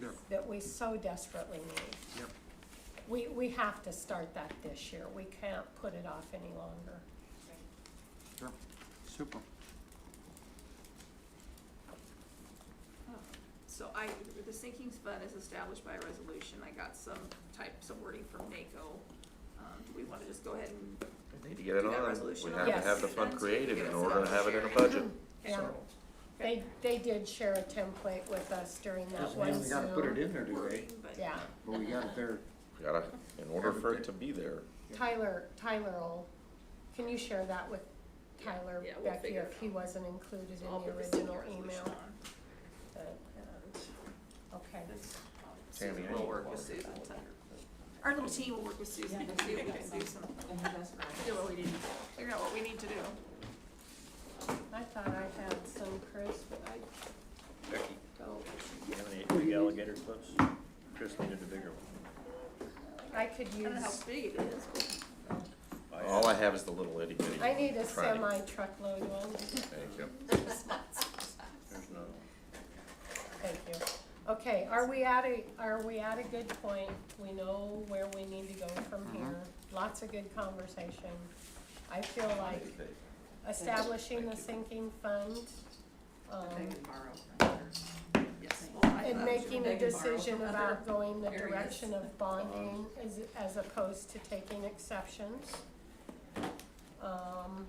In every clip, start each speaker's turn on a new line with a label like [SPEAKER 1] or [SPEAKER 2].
[SPEAKER 1] Yep.
[SPEAKER 2] that we so desperately need.
[SPEAKER 1] Yep.
[SPEAKER 2] We, we have to start that this year. We can't put it off any longer.
[SPEAKER 1] Sure, super.
[SPEAKER 3] So I, the sinking fund is established by a resolution, I got some type, some wording from NACO. Um, do we wanna just go ahead and,
[SPEAKER 4] We Need to get it
[SPEAKER 3] Do that
[SPEAKER 4] on. We
[SPEAKER 3] resolution
[SPEAKER 4] have
[SPEAKER 2] on
[SPEAKER 4] to have the
[SPEAKER 3] it.
[SPEAKER 4] fund
[SPEAKER 3] Yes.
[SPEAKER 4] created
[SPEAKER 3] Get
[SPEAKER 4] in
[SPEAKER 3] us
[SPEAKER 4] order
[SPEAKER 3] out
[SPEAKER 4] to have it in a
[SPEAKER 3] there.
[SPEAKER 4] budget.
[SPEAKER 2] Yeah,
[SPEAKER 4] So-
[SPEAKER 2] they, they did share a template with us during that one Zoom.
[SPEAKER 1] We gotta put it in there, do we?
[SPEAKER 3] wording, but.
[SPEAKER 2] Yeah,
[SPEAKER 1] But we got it there.
[SPEAKER 4] Gotta, in order for it to be there,
[SPEAKER 2] Oh, Tyler, Tyler will, can you share that with Tyler,
[SPEAKER 3] Yeah, we'll
[SPEAKER 2] Becky,
[SPEAKER 3] figure
[SPEAKER 2] if
[SPEAKER 3] it
[SPEAKER 2] he
[SPEAKER 3] out.
[SPEAKER 2] wasn't included
[SPEAKER 3] So I'll
[SPEAKER 2] in the
[SPEAKER 3] put the sinking
[SPEAKER 2] original
[SPEAKER 3] resolution
[SPEAKER 2] email?
[SPEAKER 3] on.
[SPEAKER 2] But, um, Okay,
[SPEAKER 3] This, um,
[SPEAKER 4] Tammy, I
[SPEAKER 3] Susan
[SPEAKER 4] need
[SPEAKER 3] will
[SPEAKER 4] to
[SPEAKER 3] work with
[SPEAKER 4] walk
[SPEAKER 3] Susan to, our little team will work with Susan to see if we can do some, do what we need, figure out what we need to do.
[SPEAKER 2] I thought I had some, Chris, but I
[SPEAKER 5] Becky,
[SPEAKER 2] don't.
[SPEAKER 5] do you have any big alligator clips? Chris needed a bigger
[SPEAKER 2] I could
[SPEAKER 3] I don't know how
[SPEAKER 2] use,
[SPEAKER 3] big it is, but
[SPEAKER 5] one.
[SPEAKER 4] all I have is the little itty bitty.
[SPEAKER 2] I need a
[SPEAKER 4] tranny.
[SPEAKER 2] semi truckload one.
[SPEAKER 4] Thank you.
[SPEAKER 5] There's no,
[SPEAKER 2] Thank you. Okay, are we at a, are we at a good point? We know where we need to go from
[SPEAKER 5] Uh-huh.
[SPEAKER 2] here. Lots of good conversation. I feel like establishing the sinking fund, um,
[SPEAKER 3] yes, well, I.
[SPEAKER 2] and
[SPEAKER 3] thought-
[SPEAKER 2] making a decision about going the
[SPEAKER 6] areas.
[SPEAKER 2] direction of bonding as, as opposed to taking exceptions. Um,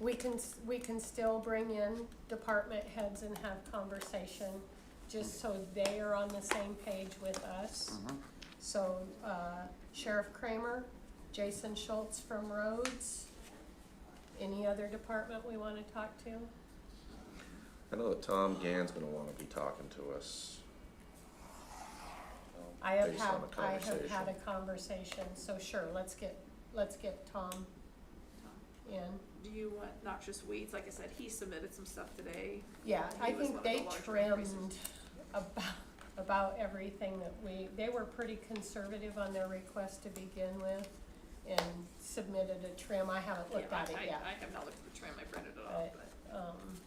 [SPEAKER 2] we can, s- we can still bring in department heads and have conversation, just so they are on the same page with us. So, uh, Sheriff Kramer, Jason Schultz from Rhodes, any other department we wanna talk to?
[SPEAKER 4] I know that Tom Gann's gonna wanna be talking to us.
[SPEAKER 2] I have
[SPEAKER 4] based
[SPEAKER 2] had,
[SPEAKER 4] on the
[SPEAKER 2] I have had a
[SPEAKER 4] conversation.
[SPEAKER 2] conversation, so sure, let's get, let's get Tom in.
[SPEAKER 3] Do you want noxious weeds? Like I said, he submitted some stuff today.
[SPEAKER 2] Yeah,
[SPEAKER 3] He
[SPEAKER 2] I
[SPEAKER 3] was
[SPEAKER 2] think
[SPEAKER 3] one of the
[SPEAKER 2] they
[SPEAKER 3] larger
[SPEAKER 2] trimmed
[SPEAKER 3] increases.
[SPEAKER 2] about, about everything that we, they were pretty conservative on their request to begin with and submitted a trim, I haven't looked
[SPEAKER 3] Yeah,
[SPEAKER 2] at it
[SPEAKER 3] I- I-
[SPEAKER 2] yet.
[SPEAKER 3] I have not looked at the trim, I printed it off,
[SPEAKER 2] But-
[SPEAKER 3] but.
[SPEAKER 2] Um,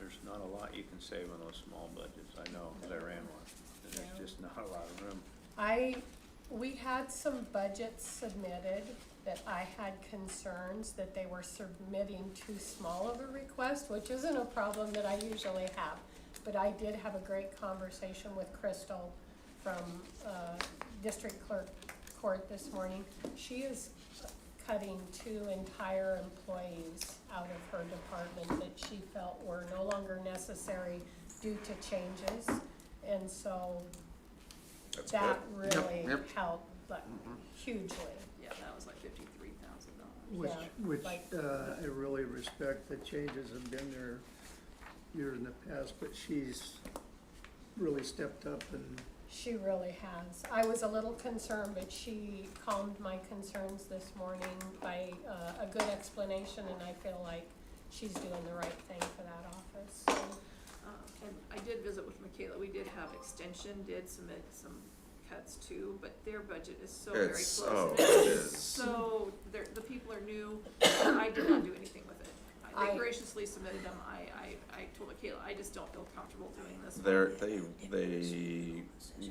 [SPEAKER 5] there's not a lot you can save on those small budgets, I know, 'cause I ran one. And
[SPEAKER 2] Yeah.
[SPEAKER 5] There's just not a lot of room.
[SPEAKER 2] I, we had some budgets submitted that I had concerns that they were submitting too small of a request, which isn't a problem that I usually have. But I did have a great conversation with Crystal from, uh, District Clerk Court this morning. She is cutting two entire employees out of her department that she felt were no longer necessary due to changes. And so
[SPEAKER 4] That's good.
[SPEAKER 2] that really
[SPEAKER 1] yep. Mm-hmm.
[SPEAKER 2] helped, like, hugely.
[SPEAKER 3] Yeah, that was like fifty-three thousand dollars.
[SPEAKER 7] Which,
[SPEAKER 2] Yeah,
[SPEAKER 7] which,
[SPEAKER 2] like-
[SPEAKER 7] uh, I really respect, the changes have been there year in the past, but she's really stepped up and
[SPEAKER 2] She really has. I was a little concerned, but she calmed my concerns this morning by uh, a good explanation, and I feel like she's doing the right thing for that office. So,
[SPEAKER 3] Um, And I did visit with Michaela, we did have extension, did submit some cuts too, but their budget is so very
[SPEAKER 4] It's,
[SPEAKER 3] close.
[SPEAKER 4] oh,
[SPEAKER 3] and
[SPEAKER 4] it is.
[SPEAKER 3] So, they're, the people are new, I did not do anything with it. I-
[SPEAKER 2] I-
[SPEAKER 3] They graciously submitted them, I, I, I told Michaela, I just don't feel comfortable doing this. one."
[SPEAKER 4] They're, they, they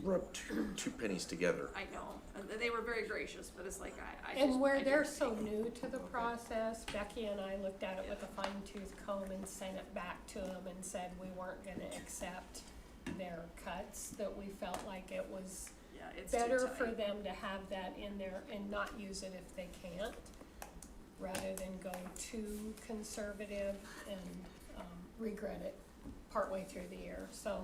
[SPEAKER 4] rub two, two pennies together.
[SPEAKER 3] I know, and they were very gracious, but it's like, I, I just.
[SPEAKER 2] And
[SPEAKER 3] I
[SPEAKER 2] where
[SPEAKER 3] didn't
[SPEAKER 2] they're so
[SPEAKER 3] think-
[SPEAKER 2] new to the process, Becky and I looked at it with a fine tooth comb and sent it back to them and said we weren't gonna accept their cuts, that we felt like it was
[SPEAKER 3] Yeah, it's too
[SPEAKER 2] better for
[SPEAKER 3] tight.
[SPEAKER 2] them to have that in there and not use it if they can't, rather than go too conservative and um, regret it partway through the year, so.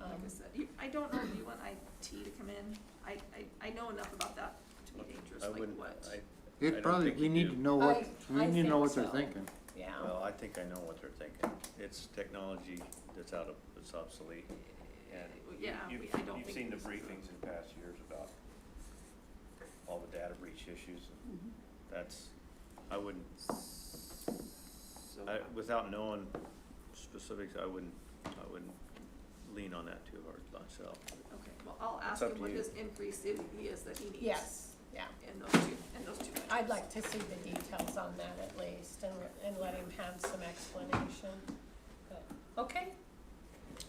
[SPEAKER 2] um,
[SPEAKER 3] Like I said, you, I don't know if you want IT to come in, I, I, I know enough about that to be dangerous,
[SPEAKER 5] I
[SPEAKER 3] like
[SPEAKER 5] wouldn't,
[SPEAKER 3] what?
[SPEAKER 5] I, I
[SPEAKER 1] It
[SPEAKER 5] don't
[SPEAKER 1] probably,
[SPEAKER 5] think
[SPEAKER 1] we
[SPEAKER 5] you
[SPEAKER 1] need
[SPEAKER 5] do.
[SPEAKER 1] to know what,
[SPEAKER 2] I-
[SPEAKER 1] we
[SPEAKER 2] I
[SPEAKER 1] need to
[SPEAKER 2] think
[SPEAKER 1] know what they're
[SPEAKER 2] so.
[SPEAKER 1] thinking.
[SPEAKER 2] Yeah,
[SPEAKER 5] Well, I think I know what they're thinking. It's technology that's out of, that's obsolete. And you-
[SPEAKER 3] Yeah,
[SPEAKER 5] you've,
[SPEAKER 3] we- I don't
[SPEAKER 5] you've
[SPEAKER 3] think
[SPEAKER 5] seen the
[SPEAKER 3] this is a-
[SPEAKER 5] briefings in past years about all the data breach issues. and
[SPEAKER 2] Mm-hmm.
[SPEAKER 5] That's, I wouldn't,
[SPEAKER 3] So,
[SPEAKER 5] I, without knowing specifics, I wouldn't, I wouldn't lean on that too hard myself.
[SPEAKER 3] okay, well, I'll
[SPEAKER 5] It's
[SPEAKER 3] ask
[SPEAKER 5] up
[SPEAKER 3] him
[SPEAKER 5] to
[SPEAKER 3] what
[SPEAKER 5] you.
[SPEAKER 3] his increase is, he is that he needs.
[SPEAKER 2] yes, yeah.
[SPEAKER 3] In those two, in those two.
[SPEAKER 2] I'd
[SPEAKER 3] budgets.
[SPEAKER 2] like to see the details on that at least and, and let him have some explanation. But, Okay,